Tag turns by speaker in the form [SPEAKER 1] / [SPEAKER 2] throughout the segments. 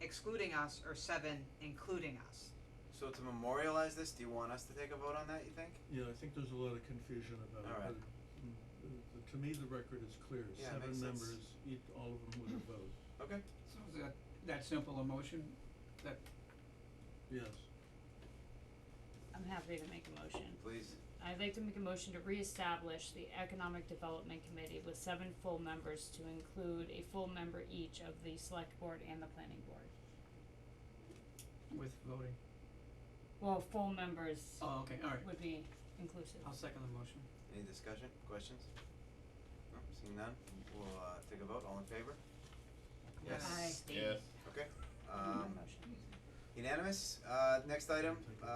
[SPEAKER 1] excluding us or seven including us.
[SPEAKER 2] So to memorialize this, do you want us to take a vote on that, you think?
[SPEAKER 3] Yeah, I think there's a lot of confusion about it,
[SPEAKER 2] Alright.
[SPEAKER 3] but mm, uh, to me, the record is clear,
[SPEAKER 2] Yeah, it
[SPEAKER 3] seven
[SPEAKER 2] makes sense.
[SPEAKER 3] members, each, all of them with a vote,
[SPEAKER 2] Okay.
[SPEAKER 4] So is that, that simple a motion, that,
[SPEAKER 3] yes.
[SPEAKER 5] I'm happy to make a motion.
[SPEAKER 2] Please.
[SPEAKER 5] I'd like to make a motion to reestablish the Economic Development Committee with seven full members to include a full member each of the Select Board and the Planning Board.
[SPEAKER 4] with voting?
[SPEAKER 5] Well, full members
[SPEAKER 4] Oh, okay, alright,
[SPEAKER 5] would be inclusive.
[SPEAKER 4] I'll second the motion.
[SPEAKER 2] Any discussion, questions? No, seeing none, we'll uh take a vote, all in favor? Yes.
[SPEAKER 6] Yes.
[SPEAKER 2] Okay,
[SPEAKER 5] My
[SPEAKER 2] um
[SPEAKER 5] motion.
[SPEAKER 2] unanimous, uh next item,
[SPEAKER 3] Take a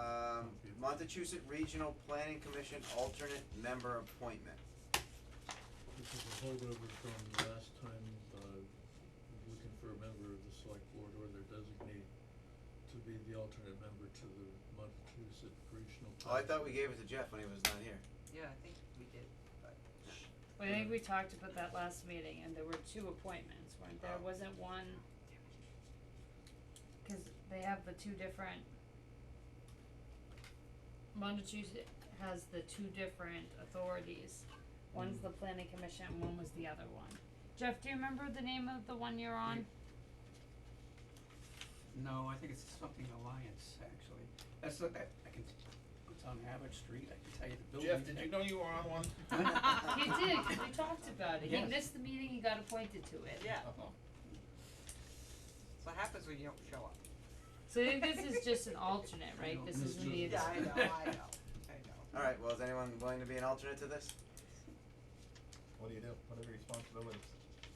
[SPEAKER 2] um
[SPEAKER 3] copy of-
[SPEAKER 2] Montechusett Regional Planning Commission alternate member appointment.
[SPEAKER 3] This is a holdover from last time, uh, looking for a member of the select board or their designee to be the alternate member to the Montezut Regional.
[SPEAKER 2] Oh, I
[SPEAKER 3] Planning
[SPEAKER 2] thought we gave it to Jeff when he was not here.
[SPEAKER 1] Yeah, I think we did.
[SPEAKER 5] Well, I think we talked about that last meeting and there were two appointments, weren't there?
[SPEAKER 2] Oh.
[SPEAKER 5] Wasn't one? Cause they have the two different. Montechusett has the two different authorities. One's the planning commission and one was the other one. Jeff, do you remember the name of the one you're on?
[SPEAKER 4] No, I think it's something Alliance, actually, that's not, that, I can, it's on Abbott Street, I can tell you the building.
[SPEAKER 6] Jeff, did you know you were on one?
[SPEAKER 5] You did, 'cause we talked about it. He
[SPEAKER 4] Yes.
[SPEAKER 5] missed the meeting, he got appointed to it.
[SPEAKER 1] Yeah,
[SPEAKER 6] Oh.
[SPEAKER 1] that's what happens when you don't show up.
[SPEAKER 5] So I think this is just an alternate,
[SPEAKER 4] I
[SPEAKER 5] right?
[SPEAKER 4] know.
[SPEAKER 5] This
[SPEAKER 3] This
[SPEAKER 5] isn't the.
[SPEAKER 3] is-
[SPEAKER 1] Yeah, I know, I know, I know.
[SPEAKER 2] Alright, well, is anyone willing to be an alternate to this?
[SPEAKER 6] What do you do? What are your responsibilities?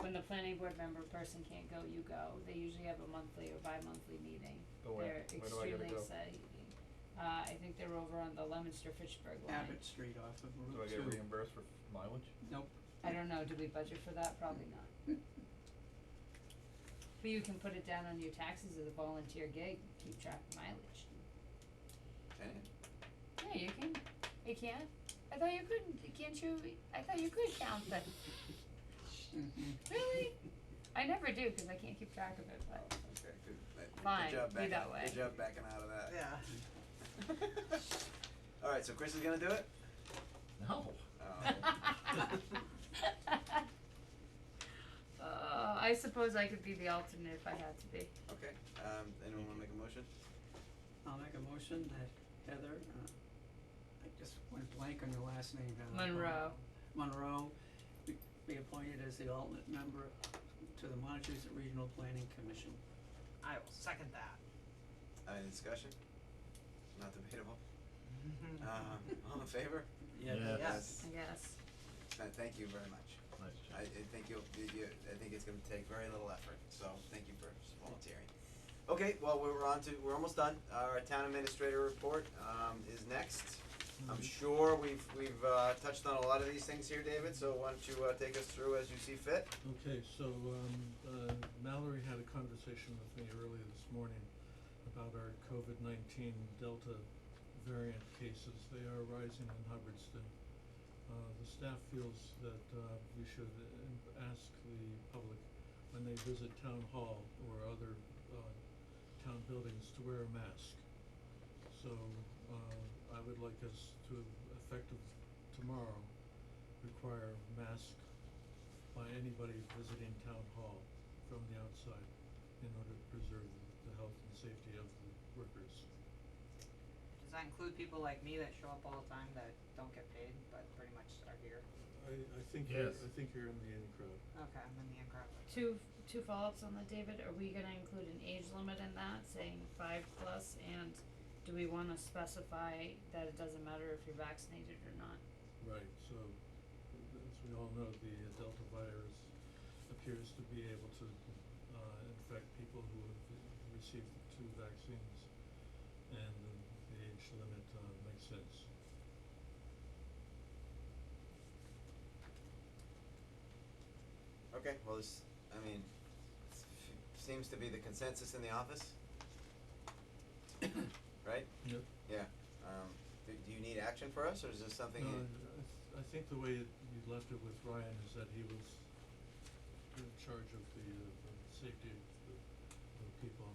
[SPEAKER 5] when the planning board member person can't go, you go. They usually have a monthly or bi-monthly meeting.
[SPEAKER 6] Go Oh, where?
[SPEAKER 5] They're
[SPEAKER 6] Where do I
[SPEAKER 5] extremely
[SPEAKER 6] gotta go?
[SPEAKER 5] exciting. Uh, I think they're over on the Lemonster Fitchburg line.
[SPEAKER 4] Abbott Street off of
[SPEAKER 6] Do
[SPEAKER 4] Route
[SPEAKER 6] I get
[SPEAKER 4] Two.
[SPEAKER 6] reimbursed for mileage?
[SPEAKER 4] Nope,
[SPEAKER 5] I don't know, did we budget for that? Probably not. But you can put it down on your taxes as a volunteer gig, keep track of mileage.
[SPEAKER 2] Any?
[SPEAKER 5] Yeah, you can, you can. I thought you couldn't, can't you, I thought you could count that. Really? I never do, cause I can't keep track of it,
[SPEAKER 2] Oh,
[SPEAKER 5] but.
[SPEAKER 2] okay, good. Uh,
[SPEAKER 5] Fine,
[SPEAKER 2] Good job
[SPEAKER 5] be
[SPEAKER 2] backing,
[SPEAKER 5] that way.
[SPEAKER 2] good job backing out of that.
[SPEAKER 1] Yeah.
[SPEAKER 2] Alright, so Chris is gonna do it?
[SPEAKER 6] No.
[SPEAKER 2] Oh.
[SPEAKER 5] Uh, I suppose I could be the alternate if I had to be.
[SPEAKER 2] Okay, um, anyone wanna make a motion?
[SPEAKER 4] I'll make a motion that Heather, uh, I just went blank on your last name, Heather.
[SPEAKER 5] Monroe.
[SPEAKER 4] Monroe be, be appointed as the alternate member to the Montezut Regional Planning Commission.
[SPEAKER 1] I will second that.
[SPEAKER 2] Uh, Any discussion? Not debatable. Um, all in favor?
[SPEAKER 6] Yeah.
[SPEAKER 1] Yes.
[SPEAKER 5] I guess.
[SPEAKER 2] Uh, thank you very much.
[SPEAKER 6] Nice
[SPEAKER 2] I, I think you'll, you, you, I think it's gonna take very little effort, so thank you for volunteering. Okay, well, we're on to, we're almost done. Our town administrator report, um, is next. I'm sure we've, we've, uh, touched on a lot of these things here, David, so why don't you, uh, take us through as you see fit?
[SPEAKER 3] Okay, so um uh Mallory had a conversation with me earlier this morning about our COVID nineteen Delta variant cases. They are rising in Hubbardston. Uh the staff feels that uh we should uh, ask the public when they visit town hall or other uh town buildings to wear a mask. So uh I would like us to effective tomorrow require mask by anybody visiting town hall from the outside in order to preserve the health and safety of the workers.
[SPEAKER 1] Does that include people like me that show up all the time that don't get paid, but pretty much are here?
[SPEAKER 3] I I think you're,
[SPEAKER 6] Yes.
[SPEAKER 3] I think you're in the in crowd.
[SPEAKER 1] Okay, I'm in the incorrect.
[SPEAKER 5] Two two follow-ups on that, David. Are we gonna include an age limit in that, saying five plus, and do we wanna specify that it doesn't matter if you're vaccinated or not?
[SPEAKER 3] Right, so as we all know, the uh, Delta virus appears to be able to uh infect people who have received two vaccines and the the age limit uh makes sense.
[SPEAKER 2] Okay, well, this, I mean, s- f- seems to be the consensus in the office. Right?
[SPEAKER 3] Yep.
[SPEAKER 2] Yeah, um, do, do you need action for us, or is this something?
[SPEAKER 3] No,
[SPEAKER 2] you-
[SPEAKER 3] I, I think the way it- you left it with Ryan is that he was in charge of the, uh, the safety